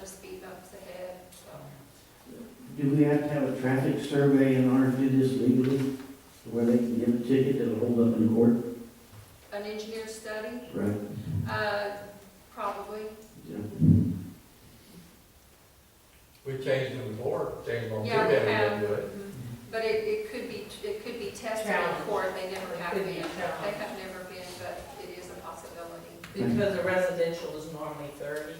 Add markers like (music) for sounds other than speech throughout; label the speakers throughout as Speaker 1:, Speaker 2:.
Speaker 1: of speed bumps ahead, so.
Speaker 2: Do we have to have a traffic survey in order to do this legally? Where they can give a ticket that'll hold up in court?
Speaker 1: An engineer study,
Speaker 2: Right.
Speaker 1: uh, probably,
Speaker 3: We changed them more, changed them to
Speaker 1: Yeah, we
Speaker 3: that,
Speaker 1: have. Mm-hmm.
Speaker 3: we do it.
Speaker 1: but it, it could be, it could be tested in
Speaker 4: Challenge.
Speaker 1: court, they never have
Speaker 4: Could
Speaker 1: been.
Speaker 4: be
Speaker 1: They
Speaker 4: challenge.
Speaker 1: have never been, but it is a possibility.
Speaker 4: Because the residential is normally thirty.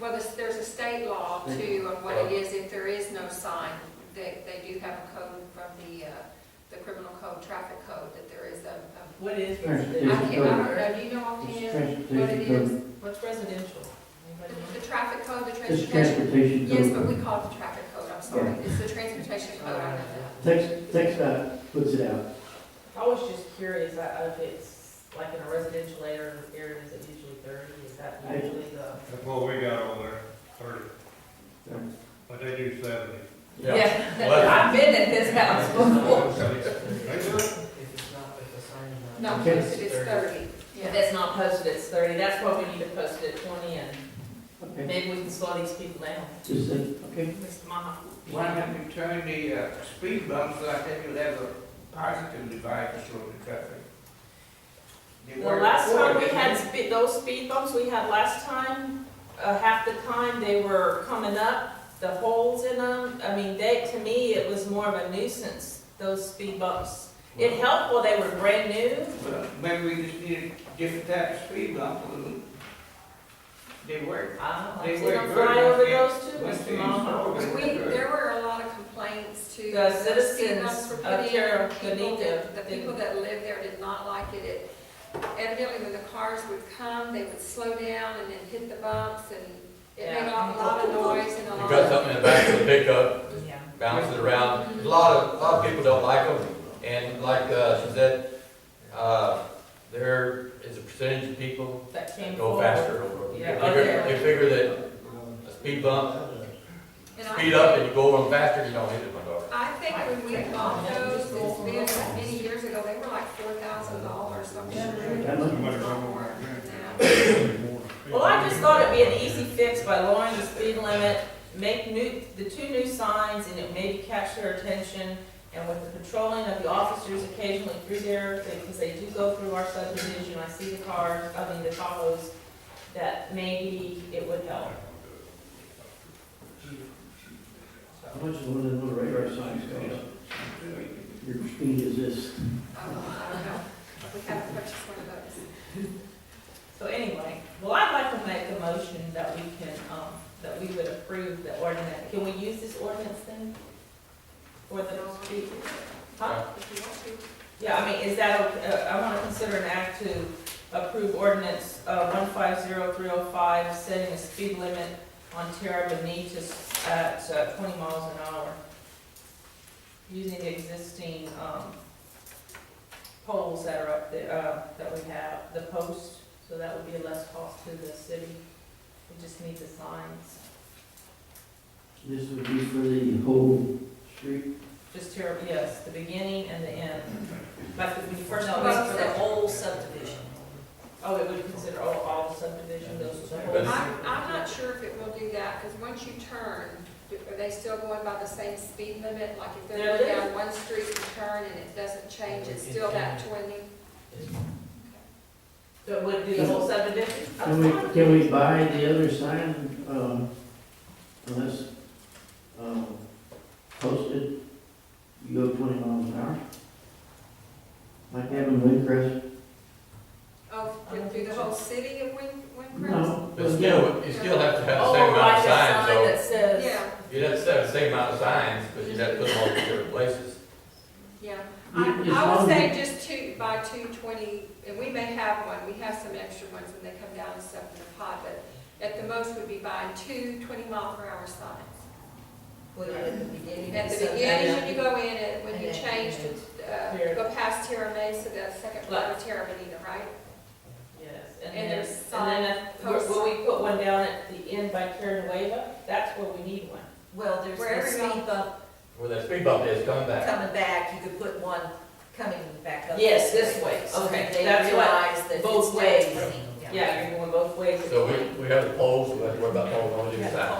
Speaker 1: Well, there's, there's a state law too of what it is, if there is no sign, they, they do have a code from the, uh, the criminal code, traffic code, that there is a, a-
Speaker 4: What is
Speaker 2: There's-
Speaker 1: I
Speaker 2: there's a
Speaker 1: can't, I don't
Speaker 4: residential?
Speaker 1: know, do you know offhand
Speaker 2: It's
Speaker 1: what it
Speaker 2: transportation
Speaker 1: is?
Speaker 2: code.
Speaker 4: What's residential?
Speaker 1: The
Speaker 4: Anybody know?
Speaker 1: the traffic code, the
Speaker 2: It's
Speaker 1: transportation?
Speaker 2: transportation
Speaker 1: Yes, but
Speaker 2: code.
Speaker 1: we call it the traffic code, I'm sorry, it's the transportation code, I know that.
Speaker 2: Text, text dot puts it out.
Speaker 4: I was just curious, I- if it's like in a residential area, area is it usually thirty, is that
Speaker 2: I-
Speaker 4: usually the?
Speaker 5: That's what we got over there, thirty.
Speaker 2: Yeah.
Speaker 5: But they do seventy.
Speaker 3: Well-
Speaker 4: I've been at this house before.
Speaker 5: They do
Speaker 3: (laughs)
Speaker 5: it.
Speaker 4: If it's not, if it's signed, uh,
Speaker 1: No,
Speaker 2: Okay.
Speaker 1: posted it's thirty.
Speaker 4: If it's not posted, it's thirty, that's why we need to post it at twenty, and
Speaker 2: Okay.
Speaker 4: maybe we can slow these people down.
Speaker 2: Just that, okay.
Speaker 4: Mr. Maha.
Speaker 6: Why don't you turn the uh, speed bumps like that you'll have a positive divide to slow the traffic? They
Speaker 4: The
Speaker 6: work
Speaker 4: last
Speaker 6: before,
Speaker 4: time we
Speaker 6: didn't
Speaker 4: had
Speaker 6: they?
Speaker 4: speed, those speed bumps we had last time, uh, half the time they were coming up, the holes in them, I mean, they, to me, it was more of a nuisance, those speed bumps. It helped while they were brand new,
Speaker 6: Well, Maybe we just need a different type of speed bump. They work.
Speaker 4: I
Speaker 6: They
Speaker 4: don't
Speaker 6: were
Speaker 4: see them
Speaker 6: good,
Speaker 4: fly
Speaker 6: I
Speaker 4: over
Speaker 6: think.
Speaker 4: those too,
Speaker 6: Once
Speaker 4: Mr.
Speaker 6: they
Speaker 4: Maha.
Speaker 6: install it,
Speaker 1: We,
Speaker 6: they work.
Speaker 1: there were a lot of complaints to.
Speaker 4: The
Speaker 1: some speed
Speaker 4: citizens
Speaker 1: bumps were
Speaker 4: of
Speaker 1: put in.
Speaker 4: Terra
Speaker 1: People that-
Speaker 4: Bonita
Speaker 1: The people
Speaker 4: didn't-
Speaker 1: that lived there did not like it. it. Evidently, when the cars would come, they would slow down and then hit the bumps and it made a
Speaker 4: Yeah.
Speaker 1: lot of noise and a
Speaker 3: You
Speaker 1: lot
Speaker 3: got
Speaker 1: of.
Speaker 3: something in the back of the pickup,
Speaker 4: Yeah.
Speaker 3: bounce it around. There's A lot of, a lot of people don't like them, and like, uh, she said, uh, there is a percentage of people
Speaker 4: That came
Speaker 3: that go
Speaker 4: forward.
Speaker 3: faster over. them. They
Speaker 4: Yeah.
Speaker 3: figure- They figure that a speed bump,
Speaker 1: And I
Speaker 3: speed up and you go over them faster, you don't hit it, my daughter.
Speaker 1: I think when we bought those, it's been many years ago, they were like four thousand dollars, I'm sure.
Speaker 2: That
Speaker 5: How much
Speaker 2: much?
Speaker 5: is
Speaker 1: Not
Speaker 5: wrong
Speaker 1: more
Speaker 5: with
Speaker 1: now.
Speaker 5: that?
Speaker 4: Well, I just thought it'd be an easy fix by lowering the speed limit, make new, the two new signs, and it maybe catch their attention. And with the patrolling of the officers occasionally through there, because they do go through our subdivision, I see the cars, I mean, the Tahoes, that maybe it would help.
Speaker 2: How much is one of those radar signs cost? Your speed is this.
Speaker 1: Oh, I don't know. We haven't purchased one of those.
Speaker 4: So anyway, well, I'd like to make a motion that we can, um, that we would approve the ordinance. Can we use this ordinance then? For the speed? Huh?
Speaker 1: If you want to.
Speaker 4: Yeah, I mean, is that, okay? uh, I want to consider an act to approve ordinance uh, one five zero three oh five, setting a speed limit on Terra Bonita at uh, twenty miles an hour, using the existing um, poles that are up there, uh, that we have, the posts, so that would be a less cost to the city. We just need the signs,
Speaker 2: This would be for the whole street.
Speaker 4: just Terra, yes, the beginning and the end. Like when you first.
Speaker 1: No, it's for the
Speaker 4: whole subdivision. Oh, it would consider all, all subdivision, those are the whole.
Speaker 3: But-
Speaker 1: I'm, I'm not sure if it will do that, because once you turn, do- are they still going by the same speed limit? Like if they're going
Speaker 4: They're-
Speaker 1: down one street and turn and it doesn't change, it's still that twenty?
Speaker 4: So it would do the whole subdivision?
Speaker 2: Can we, can we buy the other sign, um, unless, um, posted, you go twenty miles an hour? Like having Windcrest?
Speaker 1: Oh,
Speaker 4: I don't
Speaker 1: through the
Speaker 4: think so.
Speaker 1: whole city of Win, Wincrest?
Speaker 2: No.
Speaker 3: But still, you still have to have the same
Speaker 4: Oh,
Speaker 3: amount
Speaker 4: like
Speaker 3: of
Speaker 4: a
Speaker 3: signs,
Speaker 4: sign
Speaker 3: so
Speaker 4: that says.
Speaker 1: Yeah,
Speaker 3: you'd have to have the same amount of signs, but you'd have to put them all in different places.
Speaker 1: yeah.
Speaker 2: Yeah,
Speaker 1: I,
Speaker 2: as
Speaker 1: I would
Speaker 2: long
Speaker 1: say
Speaker 2: as-
Speaker 1: just two, by two twenty, and we may have one, we have some extra ones when they come down and stuff in the pot, but at the most would be buying two twenty mile per hour signs.
Speaker 7: Put it at the beginning.
Speaker 1: At the
Speaker 7: so-
Speaker 1: beginning, when you go in, and when you
Speaker 7: And then-
Speaker 1: change to, uh,
Speaker 4: Here.
Speaker 1: go past Terra Mesa, the second floor of Terra Medina, right?
Speaker 4: Yes, and
Speaker 1: And
Speaker 4: then,
Speaker 1: there's
Speaker 4: and then, if-
Speaker 1: sign-
Speaker 4: will we put one down at the end by Caranueva? That's where we need one.
Speaker 7: Well, there's
Speaker 1: Where
Speaker 7: the
Speaker 1: everybody-
Speaker 7: speed bump
Speaker 3: Where that speed bump is coming back.
Speaker 7: coming back, you could put one coming back up.
Speaker 4: Yes, this way,
Speaker 7: So
Speaker 4: okay,
Speaker 7: that they
Speaker 4: that's what-
Speaker 7: realize that it's
Speaker 4: both
Speaker 7: not
Speaker 4: ways.
Speaker 7: running.
Speaker 4: Yeah, you're going both ways.
Speaker 3: So we, we have the poles, we have to worry about poles on the other side.